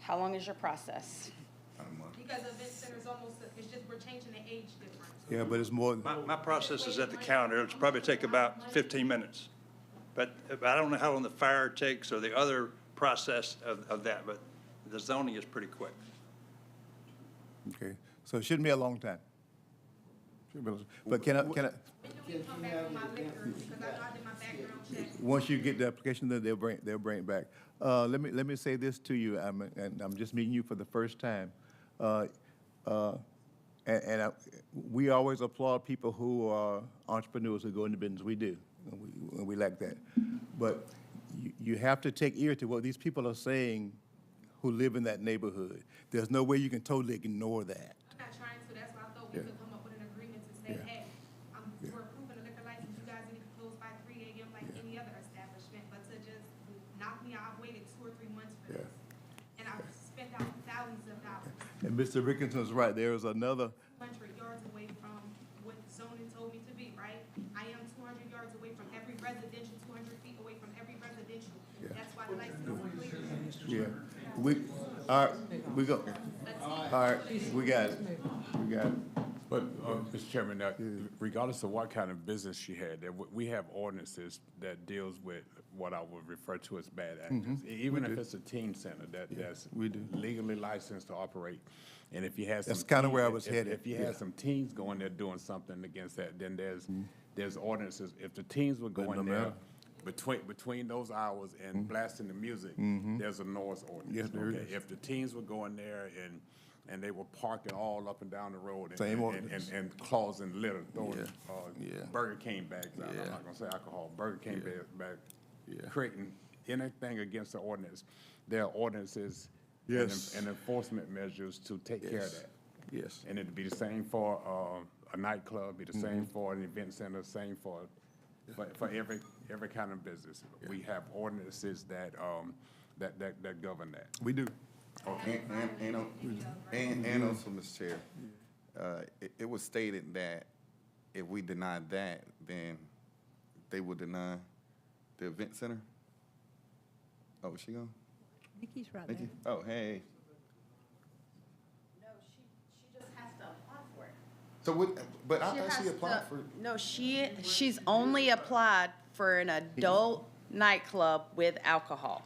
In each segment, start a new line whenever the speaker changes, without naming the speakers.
How long is your process?
About a month.
Because event center's almost, it's just, we're changing the age difference.
Yeah, but it's more,
My, my process is at the counter. It'll probably take about fifteen minutes. But but I don't know how long the fire takes or the other process of, of that, but the zoning is pretty quick.
okay, so it shouldn't be a long time. Shouldn't be a long- But can I, can I,
When do we come back on my liquor, because I know I did my background check.
once you get the application, then they'll bring, they'll bring it back. Uh, let me, let me say this to you, I'm, and I'm just meeting you for the first time. Uh, uh, And, and I, we always applaud people who are entrepreneurs who go into business, we do, and we, and we like that. But you, you have to take ear to what these people are saying who live in that neighborhood. There's no way you can totally ignore that.
I'm not trying to, that's why I thought we could come up with an agreement to say,
Yeah.
hey, um, we're approving a liquor license, you guys need to close by three AM like any other establishment, but to just knock me out, I've waited two or three months for
Yeah.
this. And I've spent out thousands of dollars,
And Mr. Rickinson's right, there is another,
hundred yards away from what zoning told me to be, right? I am two hundred yards away from every residential, two hundred feet away from every residential. That's why the license is clear.
yeah, we, all right, we go, all right, we got it, we got it.
But, uh, Mr. Chairman, uh, regardless of what kind of business she had, there w- we have ordinances that deals with what I would refer to as bad actors.
Mm-hmm.
E- Even if it's a teen center that, that's
we do.
legally licensed to operate, and if you have some.
That's kinda
teen-
where I was
if-
headed,
If you
yeah. Mm-hmm.
had some teens going there doing something against that, then there's, there's ordinances. If the teens were
no
going
matter. Mm-hmm.
there between, between those hours and blasting the music, there's a noise ordinance.
Yes, there
okay?
is.
If the teens were going there and, and they were parking all up and down the road and-
Same
and-
ordinance.
And, and claws and litter, throwing,
Yeah,
uh,
yeah.
Burger King bags out, I'm
Yeah.
not gonna say alcohol, Burger King bags
Yeah.
back, creating anything against the ordinance. There are ordinances and en-
Yes.
and enforcement measures to take care of
Yes.
that.
Yes.
And it'd be the same for, uh, a nightclub, be the
Mm-hmm.
same for an event center, same for, for, for every, every kind of business. We have ordinances that, um, that, that, that govern that.
We do.
Oh, and, and, and, on- and, and also, Mr. Chair, uh, it, it was stated that if we deny that, then they would deny the event center? Oh, is she gone?
Nikki's right
Nikki?
there.
Oh, hey.
No, she, she just has to apply for it.
So what, but I
She
thought she
has
applied
to-
for,
No, she, she's only applied for an adult nightclub with alcohol.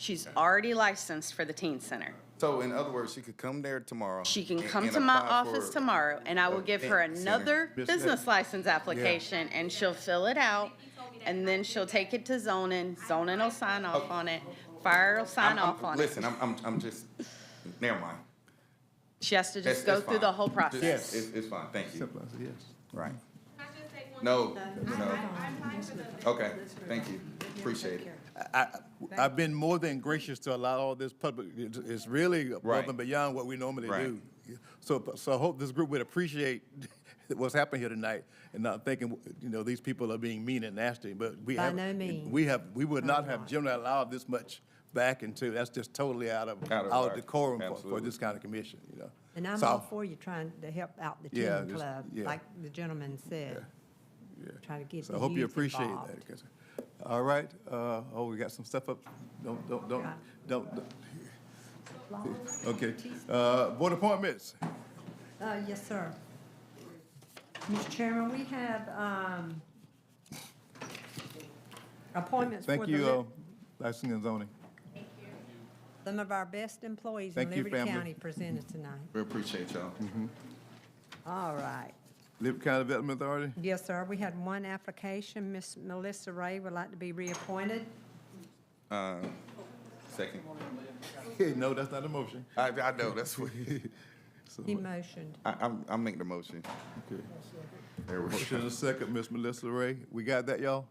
She's already licensed for the teen center.
so in other words, she could come there tomorrow.
She can
and-
come
and
to my
apply for-
office tomorrow and I will
a
give her
event center.
another
Miss
business license application and she'll fill it out. And then she'll take it to zoning, zoning will sign off on it, fire will sign
I'm- I'm-
off on it.
Listen, I'm, I'm, I'm just, never mind.
She has to
It's-
just go
it's
through
fine.
the whole
Just-
process.
It's, it's fine, thank you.
Simple answer, yes.
Right.
Can I just say one?
No,
thing? I,
no.
I, I applied for the event
Okay, thank you, appreciate it.
I, I- I've been more than gracious to allow all this public, it's- it's really above
Right.
and beyond what we normally
Right.
do. So, so I hope this group would appreciate what's happened here tonight and not thinking, you know, these people are being mean and nasty, but we
By
have.
no means.
We have, we would not have generally allowed this much back into, that's just totally out of,
Out of
our
our-
decorum for- for
absolutely.
this kind of commission, you know?
And I'm
So-
all for you trying to help out the
Yeah,
teen
just-
club,
yeah.
like the gentleman said. Try to get
So
the
I hope you
youth
appreciate
involved.
that. 'cause- All right, uh, oh, we got some stuff up, don't, don't, don't, don't, don't- okay. Uh, board appointments,
Uh, yes, sir. Mr. Chairman, we have, um, appointments for
thank
the,
you, uh,
li-
licensing and zoning.
some of our best employees in
Thank you,
Liberty
family.
County presented tonight.
We appreciate y'all.
All right.
Liberty County Development Authority,
Yes, sir. We had one application. Miss Melissa Ray would like to be reappointed.
Second.
no, that's not a motion.
I, I know, that's what,
So,
He motioned.
I, I'm, I'm making the motion.
okay.
There we
Motion
go.
and a second, Ms. Melissa Ray, we got that, y'all?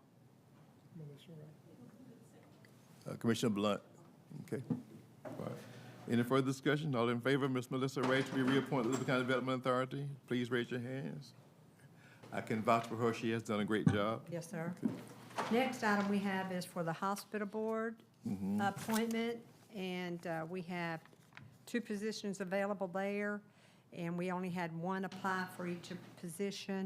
Uh, Commissioner Blunt, okay. All right. Any further discussion, all in favor, Ms. Melissa Ray to be reappointed Liberty County Development Authority, please raise your hands. I can vouch for her, she has done a great job.
Yes, sir. Next item we have is for the hospital board appointment, and uh, we have two positions available there, and we only had one apply for each position.